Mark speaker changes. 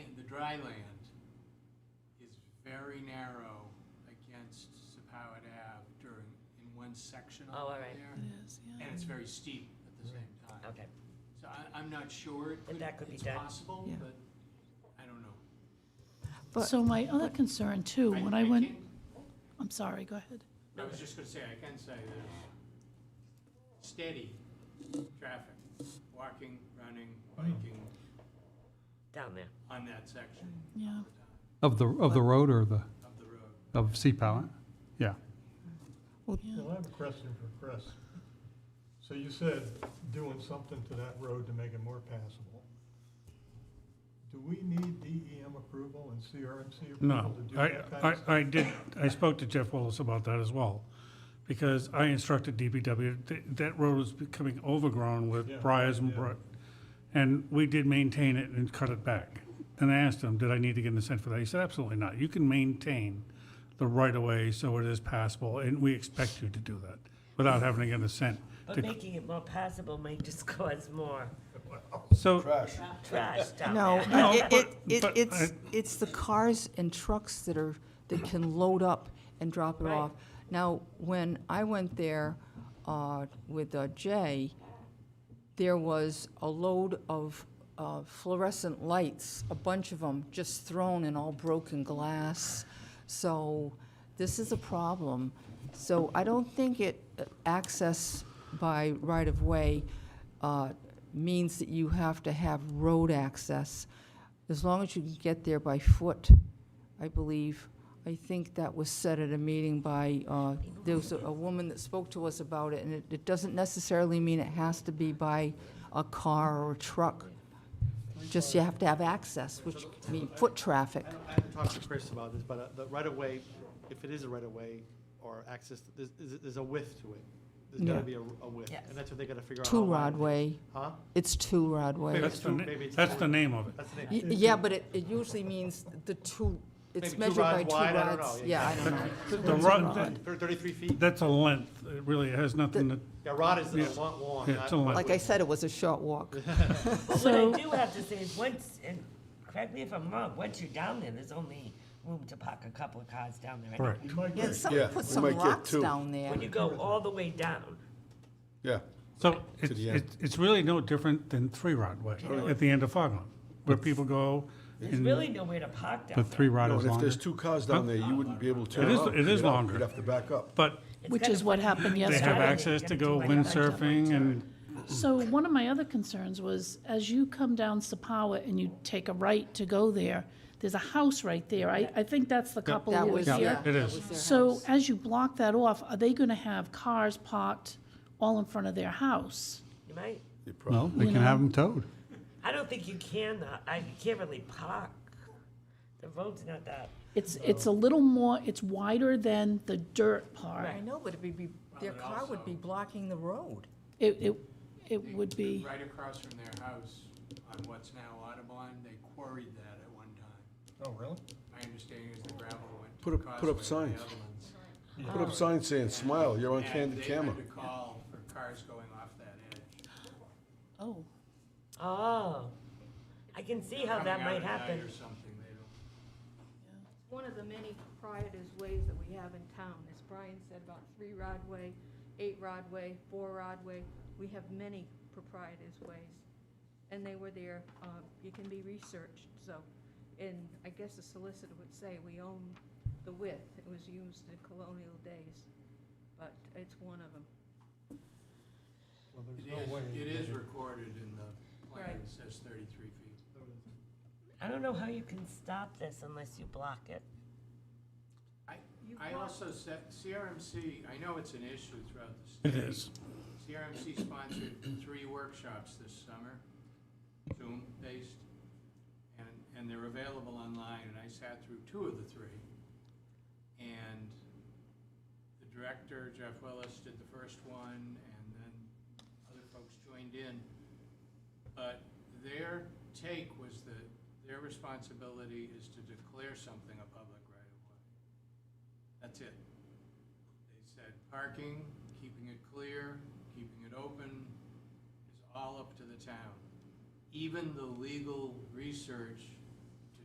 Speaker 1: dry land is very narrow against Sepauwett Ave during, in one section
Speaker 2: Oh,
Speaker 1: over
Speaker 2: all right.
Speaker 1: there.
Speaker 3: It is, yeah.
Speaker 1: And it's very steep at the same time.
Speaker 2: Okay,
Speaker 1: So I, I'm not sure. it
Speaker 2: But that could be
Speaker 1: it's
Speaker 2: done.
Speaker 1: possible,
Speaker 3: Yeah.
Speaker 1: but I don't know.
Speaker 4: But-
Speaker 3: So my other concern too, when I went,
Speaker 1: can-
Speaker 3: I'm sorry, go ahead.
Speaker 1: I was just gonna say, I can say there's steady traffic, walking, running,
Speaker 3: Mm.
Speaker 1: biking
Speaker 2: down there.
Speaker 1: on that section
Speaker 3: Yeah,
Speaker 1: all the time
Speaker 5: Of the, of the road or the,
Speaker 1: of the road.
Speaker 5: of Sea Palette? Yeah.
Speaker 4: Well,
Speaker 3: yeah.
Speaker 6: Well, I have a question for Chris. So you said doing something to that road to make it more passable. Do we need DEM approval and CRMC approval
Speaker 7: No,
Speaker 6: to do
Speaker 7: I,
Speaker 6: that kind
Speaker 7: I,
Speaker 6: of stuff?
Speaker 7: I did, I spoke to Jeff Willis about that as well, because I instructed DPW, th- that road was becoming overgrown
Speaker 6: Yeah,
Speaker 7: with briars and
Speaker 6: yeah.
Speaker 7: brush. And we did maintain it and cut it back. And I asked him, did I need to get an assent for that? He said, absolutely not. You can maintain the right-of-way so it is passable, and we expect you to do that, without having to get an assent.
Speaker 2: But
Speaker 7: to-
Speaker 2: making it more passable may just cause more
Speaker 7: So,
Speaker 2: trash down
Speaker 4: no,
Speaker 2: there.
Speaker 4: it, it, it,
Speaker 7: but
Speaker 4: it's,
Speaker 7: I-
Speaker 4: it's the cars and trucks that are, that can load up and drop it
Speaker 2: Right.
Speaker 4: off. Now, when I went there, uh, with uh, Jay, there was a load of uh, fluorescent lights, a bunch of them, just thrown in all broken glass. So this is a problem. So I don't think it, uh, access by right-of-way uh, means that you have to have road access. As long as you can get there by foot, I believe. I think that was said at a meeting by, uh, there was a a woman that spoke to us about it, and it- it doesn't necessarily mean it has to be by a car or a truck. Just you have to have access, which means foot traffic.
Speaker 8: I don't- I haven't talked to Chris about this, but uh, the right-of-way, if it is a right-of-way or access, there's, there's there's a width to it. There's
Speaker 4: Yeah.
Speaker 8: gotta be a a width,
Speaker 2: Yes.
Speaker 8: and that's what they gotta figure out. how wide-
Speaker 4: Two-rod way,
Speaker 8: Huh?
Speaker 4: it's two-rod way.
Speaker 8: Maybe
Speaker 7: that's
Speaker 8: it's
Speaker 7: the,
Speaker 8: two-
Speaker 7: na-
Speaker 8: maybe it's
Speaker 7: that's
Speaker 8: two.
Speaker 7: the name of it.
Speaker 8: That's the
Speaker 4: Y-
Speaker 8: name.
Speaker 4: Yeah, but it it usually means the two, it's
Speaker 8: Maybe two
Speaker 4: measured by
Speaker 8: rods
Speaker 4: two
Speaker 8: wide, I don't
Speaker 4: rods.
Speaker 8: know.
Speaker 4: Yeah, I don't know.
Speaker 7: The rod, that-
Speaker 8: Thir- Thirty-three feet?
Speaker 7: that's a length, it really has nothing to,
Speaker 8: Yeah, rod is
Speaker 7: Yeah.
Speaker 8: a long, long.
Speaker 7: Yeah,
Speaker 8: not-
Speaker 7: it's a long.
Speaker 4: Like I said, it was a short walk.
Speaker 2: But what I do have to say is once, and correct me if I'm wrong, once you're down there, there's only room to park a couple of cars down there. I know.
Speaker 7: correct.
Speaker 6: You might
Speaker 4: Yeah,
Speaker 6: get-
Speaker 4: someone put some
Speaker 9: might get
Speaker 4: rocks
Speaker 9: two.
Speaker 4: down there.
Speaker 2: When you go all the way down,
Speaker 9: Yeah,
Speaker 7: So it's,
Speaker 9: the end.
Speaker 7: it's, it's really no different than Three Rod Way at the end of Foghorn, where people go
Speaker 2: there's
Speaker 7: and
Speaker 2: really nowhere to park
Speaker 7: the
Speaker 2: down
Speaker 7: Three
Speaker 2: there.
Speaker 7: Rod
Speaker 9: No, and
Speaker 7: is
Speaker 9: if
Speaker 7: longer.
Speaker 9: there's two cars down there, you wouldn't be able to
Speaker 7: It
Speaker 9: turn
Speaker 7: is-
Speaker 9: up.
Speaker 7: it
Speaker 9: You'd
Speaker 7: is
Speaker 9: have-
Speaker 7: longer.
Speaker 9: You'd have to back up.
Speaker 7: But
Speaker 2: It's
Speaker 3: Which
Speaker 2: kind
Speaker 3: is
Speaker 2: of
Speaker 3: what
Speaker 2: funny.
Speaker 3: happened
Speaker 7: they
Speaker 3: yesterday.
Speaker 7: have access to go windsurfing and,
Speaker 3: So one of my other concerns was, as you come down Sapawa and you take a right to go there, there's a house right there. I, I think that's the couple
Speaker 4: That
Speaker 3: that was
Speaker 4: was,
Speaker 3: here.
Speaker 4: yeah.
Speaker 7: yeah, it is.
Speaker 3: So as you block that off, are they gonna have cars parked all in front of their house?
Speaker 2: You might,
Speaker 9: You probably-
Speaker 5: Well, they can have them towed.
Speaker 2: I don't think you can, uh, I, you can't really park. The road's not that,
Speaker 3: It's, it's a little more, it's wider than the dirt part.
Speaker 4: I know, but it'd be, their
Speaker 1: but
Speaker 4: car would be
Speaker 1: also-
Speaker 4: blocking the road.
Speaker 3: It, it, it would be,
Speaker 1: Right across from their house on what's now Audubon, they quarried that at one time.
Speaker 6: Oh, really?
Speaker 1: My understanding is the gravel went to
Speaker 9: Put up- put up
Speaker 1: Causeway and the
Speaker 9: signs.
Speaker 1: other ones.
Speaker 9: Put up signs saying, smile, you're on
Speaker 1: And
Speaker 9: candid camera.
Speaker 1: They had to call for cars going off that edge.
Speaker 3: oh,
Speaker 2: oh, I can see how that
Speaker 1: Coming out
Speaker 2: might
Speaker 1: at night
Speaker 2: happen.
Speaker 1: Or something, they don't.
Speaker 10: One of the many proprietors' ways that we have in town, as Brian said about three rod way, eight rod way, four rod way, we have many proprietors' ways. And they were there, um, it can be researched, so, and I guess the solicitor would say, we own the width, it was used in colonial days, but it's one of them.
Speaker 6: Well, there's
Speaker 1: It
Speaker 6: no way.
Speaker 1: is, it is recorded in the plan, it says thirty-three feet.
Speaker 2: I don't know how you can stop this unless you block it.
Speaker 1: I,
Speaker 10: You
Speaker 1: I
Speaker 10: block-
Speaker 1: also said, CRMC, I know it's an issue throughout the state.
Speaker 7: it is.
Speaker 1: CRMC sponsored three workshops this summer, Zoom-based, and, and they're available online, and I sat through two of the three. And the director, Jeff Willis, did the first one, and then other folks joined in. But their take was that their responsibility is to declare something a public right-of-way. That's it. They said parking, keeping it clear, keeping it open is all up to the town. Even the legal research